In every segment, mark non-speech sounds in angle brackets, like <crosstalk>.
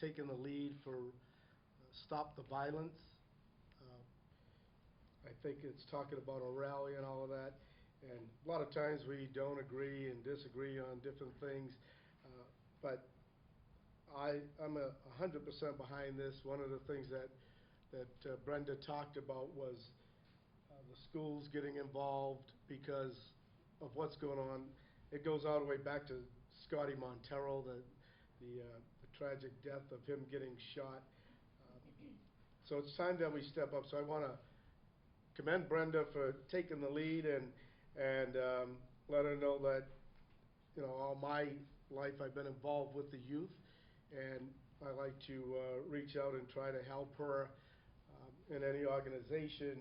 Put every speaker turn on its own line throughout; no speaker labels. taken the lead for uh, Stop the Violence. Uh, I think it's talking about a rally and all of that. And a lot of times we don't agree and disagree on different things, uh, but I, I'm a a hundred percent behind this. One of the things that, that uh, Brenda talked about was uh, the schools getting involved because of what's going on. It goes all the way back to Scotty Montero, the, the uh, the tragic death of him getting shot. Uh, So it's time that we step up. So I want to commend Brenda for taking the lead and, and um, let her know that, you know, all my life I've been involved with the youth. And I like to uh, reach out and try to help her um, in any organization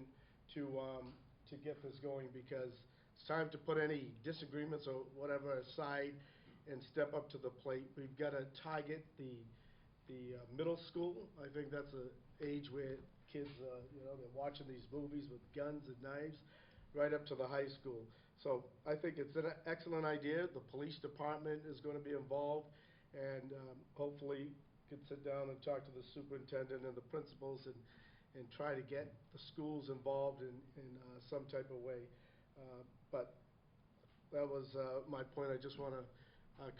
to, um, to get this going because it's time to put any disagreements or whatever aside and step up to the plate. We've got to target the, the uh, middle school. I think that's a age where kids, uh, you know, they're watching these movies with guns and knives, right up to the high school. So I think it's an excellent idea. The police department is going to be involved, and um, hopefully could sit down and talk to the superintendent and the principals and, and try to get the schools involved in, in uh, some type of way. Uh, But that was uh, my point. I just want to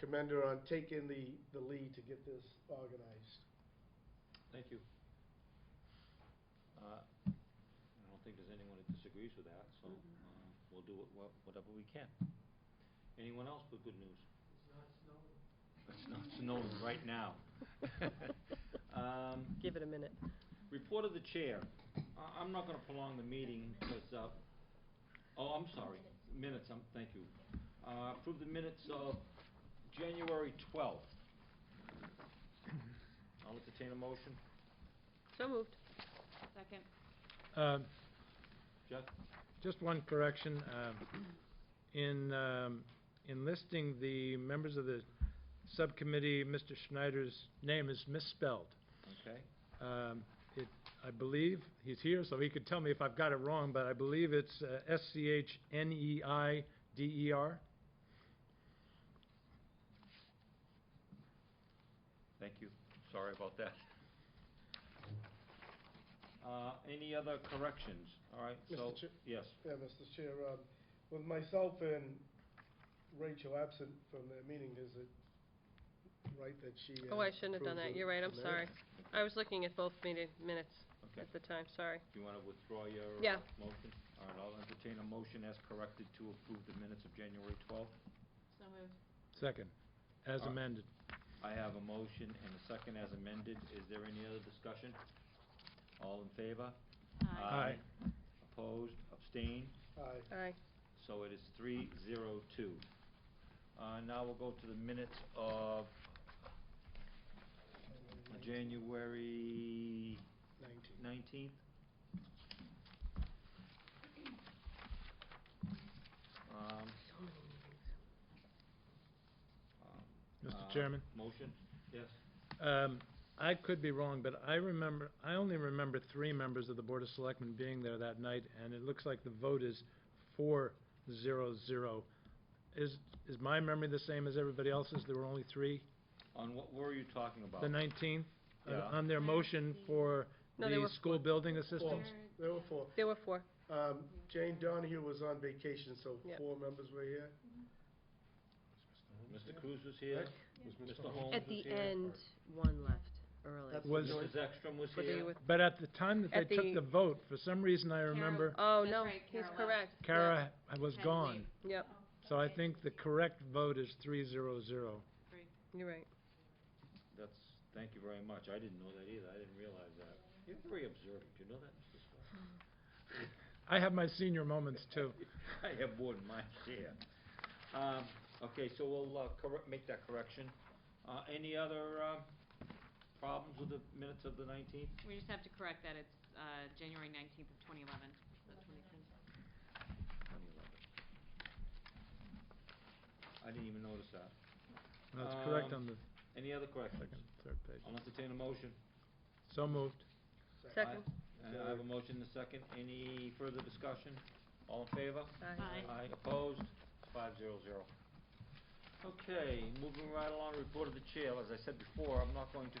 commend her uh, on taking the, the lead to get this organized.
Thank you. Uh, I don't think there's anyone that disagrees with that, so uh, we'll do what- what- whatever we can. Anyone else with good news? It's not snowing. It's not snowing right now. Um,
Give it a minute.
Report of the chair. I- I'm not going to prolong the meeting because, uh, oh, I'm sorry, minutes, um, thank you. Uh, Approve the minutes of January 12th. I'll entertain a motion.
So moved.
Second.
Um,
Jeff?
Just one correction. um, In, um, in listing the members of the subcommittee, Mr. Schneider's name is misspelled.
Okay.
Um, It, I believe, he's here, so he could tell me if I've got it wrong, but I believe it's uh, E S-C-H-N-E-I-D-E-R.
Thank you. Sorry about that. Uh, Any other corrections? All right,
Mr.
so,
Chair-
yes.
Yeah, Mr. Chair, um, with myself and Rachel absent from the meeting, is it right that she? uh,
Oh, I shouldn't have done
approved
that.
the
You're right, I'm
minutes?
sorry. I was looking at both meeting minutes
Okay.
at the time, sorry.
Do you want to withdraw your uh,
Yeah.
motion? All right, I'll entertain a motion as corrected to approve the minutes of January 12th.
So moved.
Second, as
Uh,
amended.
I have a motion and a second as amended. Is there any other discussion? All in favor?
Aye.
Opposed, abstained,
Aye.
Aye.
so it is three zero two. Uh, now we'll go to the minutes of January
Nineteen.
nineteenth. Um, um,
Mr.
uh,
Chairman?
Motion? Yes.
Um, I could be wrong, but I remember, I only remember three members of the Board of Selectmen being there that night, and it looks like the vote is four zero zero. Is, is my memory the same as everybody else's? There were only three?
On what were you talking about?
The nineteenth?
Yeah.
On their motion for
No, there
the
were
school building assistance?
Four. There were four.
There were four.
Um, Jane Donahue was on vacation, so
Yep.
four members were here.
Mr. Cruz was here. Mr. Holmes
At
was
the
here.
end, one left early.
That's
Was-
Mrs. Ekstrom was
Whether you
here.
with-
But at the time that
At
they
the-
took the vote, for some reason I remember
Oh,
That's
no,
right,
he's
Carol.
correct.
Kara was
Had to
gone.
leave.
Yep,
So I think the correct vote is three zero zero.
Three.
you're right.
That's, thank you very much. I didn't know that either. I didn't realize that. You're very observant, you know that, Mr. Swire?
I have my senior moments too.
<laughs> I have more than my share. Um, Okay, so we'll uh, correct, make that correction. Uh, Any other um, problems with the minutes of the 19th?
We just have to correct that. It's uh, January 19th of 2011, not
2011.
2010.
I didn't even notice that.
That's correct
Um,
on the
Any other corrections?
second, third page.
I'll entertain a motion.
So moved.
Second.
I I have a motion and a second. Any further discussion? All in favor?
Aye.
Aye, opposed, five zero zero. Okay, moving right along, report of the chair. As I said before, I'm not going to